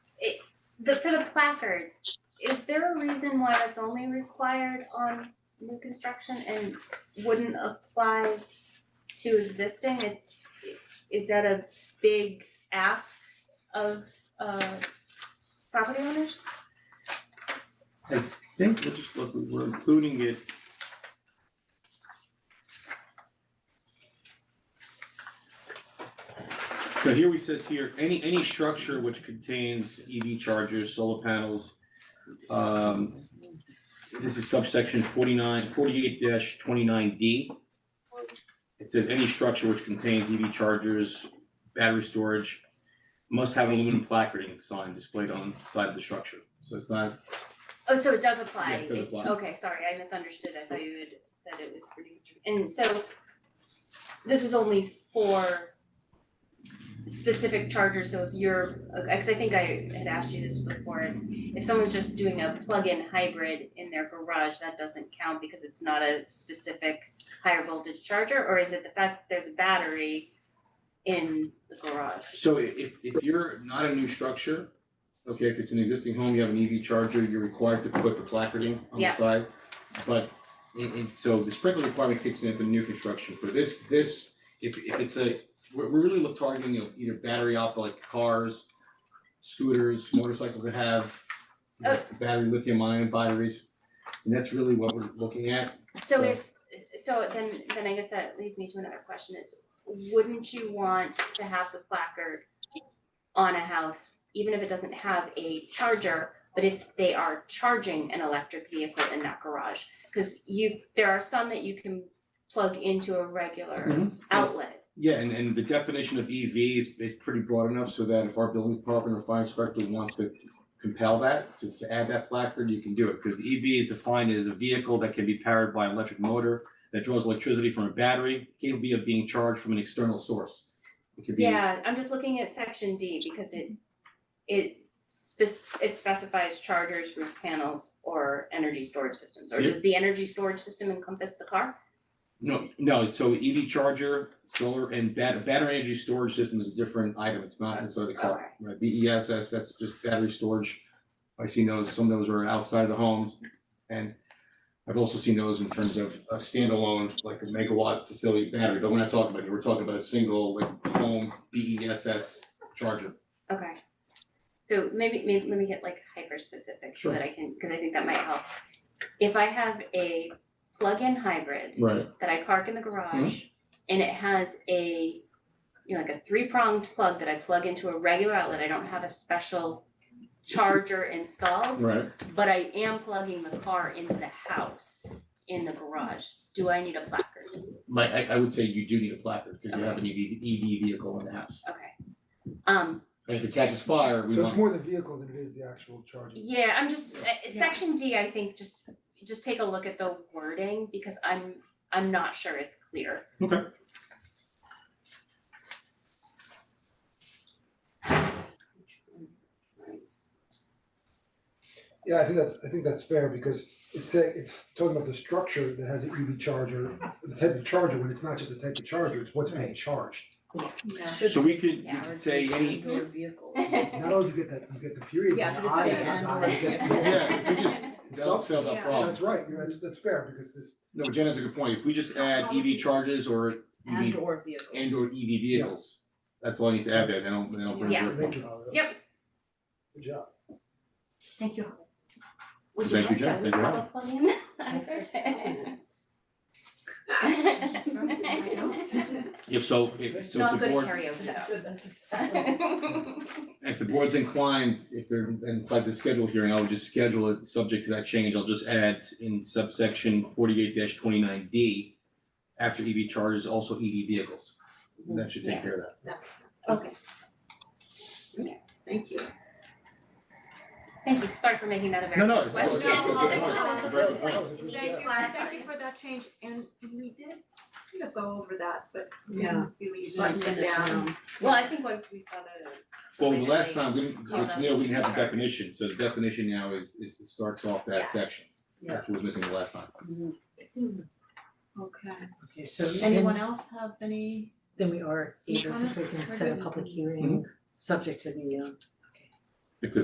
the, for the placards, is there a reason why that's only required on new construction and wouldn't apply to existing? It- Is that a big ask of, uh, property owners? I think, we'll just look, we're including it. So here we says here, any, any structure which contains EV chargers, solar panels, um, this is subsection 49 48 twenty-nine D. It says any structure which contains EV chargers, battery storage, must have an aluminum placarding sign displayed on the side of the structure. So it's not Oh, so it does apply? Yeah, it does apply. Okay, sorry, I misunderstood. I thought you had said it was pretty, and so this is only for specific chargers, so if you're, cause I think I had asked you this before, it's if someone's just doing a plug-in hybrid in their garage, that doesn't count because it's not a specific higher voltage charger, or is it the fact that there's a battery in the garage? So i- if if you're not a new structure, okay, if it's an existing home, you have an EV charger, you're required to put the placarding on the Yeah. side. But and and so the sprinkler requirement kicks in for new construction, for this this, if if it's a, we're we're really look targeting you know, either battery op like cars, scooters, motorcycles that have you know, Oh. battery lithium ion batteries. And that's really what we're looking at. So So- if, so then, then I guess that leads me to another question is, wouldn't you want to have the placard on a house, even if it doesn't have a charger, but if they are charging an electric vehicle in that garage? Cause you, there are some that you can plug into a regular Mhm. outlet. Yeah, and and the definition of EV is is pretty broad enough so that if our building department or fire inspector wants to compel that, to to add that placard, you can do it, because the EV is defined as a vehicle that can be powered by an electric motor that draws electricity from a battery, capable of being charged from an external source. It could be, Yeah, I'm just looking at section D because it, it spec- it specifies chargers, roof panels, or energy storage systems. Or Yeah. does the energy storage system encompass the car? no, no, so EV charger, solar and bat- battery energy storage system is a different item, it's not inside the Okay. car. Right, BESS, that's just battery storage, I've seen those, some of those are outside of the homes. And I've also seen those in terms of a standalone, like a megawatt facility battery, but we're not talking about it, we're talking about a single like home BESS charger. Okay. So maybe, maybe let me get like hyper specific so Sure. that I can, cause I think that might help. If I have a plug-in hybrid Right. that I park in the garage and it has a, you know, like a three-pronged plug that I plug into a regular outlet, I don't have a special charger installed, Right. but I am plugging the car into the house in the garage, do I need a placard? My, I I would say you do need a placard, because you have an E EV EV vehicle in the house. Okay. Um, And if it catches fire, we So it's want, more the vehicle than it is the actual charging. Yeah, I'm just, uh, section D, I think, just, just take a look at the wording, because I'm, I'm not sure it's clear. Yeah, I think that's, I think that's fair because it's saying, it's talking about the structure that has an EV charger, the type of charger, when it's not just the type of charger, it's what's being charged. so we could, we Yeah, or could say any, indoor vehicle. Not only do you get that, you get the period, Yeah, the but it's I, an not I, you get and- the- yeah, we just, that'll solve that Yeah. problem. That's right, you're- that's, that's fair because this, No, Jen has a good point. If we just add EV chargers or E And EV or vehicles. and or EV E vehicles, that's all I need to add there, then I'll, then I'll bring Yeah. it thank you, up. Holly. Yep. Good job. Thank you. Would you Thank you, guess that we Jen. Thank you. have a plug-in? That's right. That's right, I don't. Yep, so if, so Not if the good at board, karaoke That's though. a, that's a. if the board's inclined, if they're inclined to schedule a hearing, I would just schedule it subject to that change. I'll just add in subsection forty-eight twenty-nine D, after EV chargers, also EV vehicles. And That should take care of that. That makes sense. Okay. Yeah. Thank you. Thank you, sorry for making that a No, very no, good it's- question. it's- it's a good point. That's a very good point. Thank you, Yeah. thank you for that change, and we did kind of go over that, but we Yeah. didn't really Button button it it down. Um, down. Well, I think once we saw the, Well, the last time, we didn't, Yeah. it's near, we didn't have the definition, so the definition now is, is it starts off that section. yes, Yeah. That was missing the last time. Okay, Okay, so anyone then, else have any? then we are able to Comments? freaking set a public hearing, subject to the, um,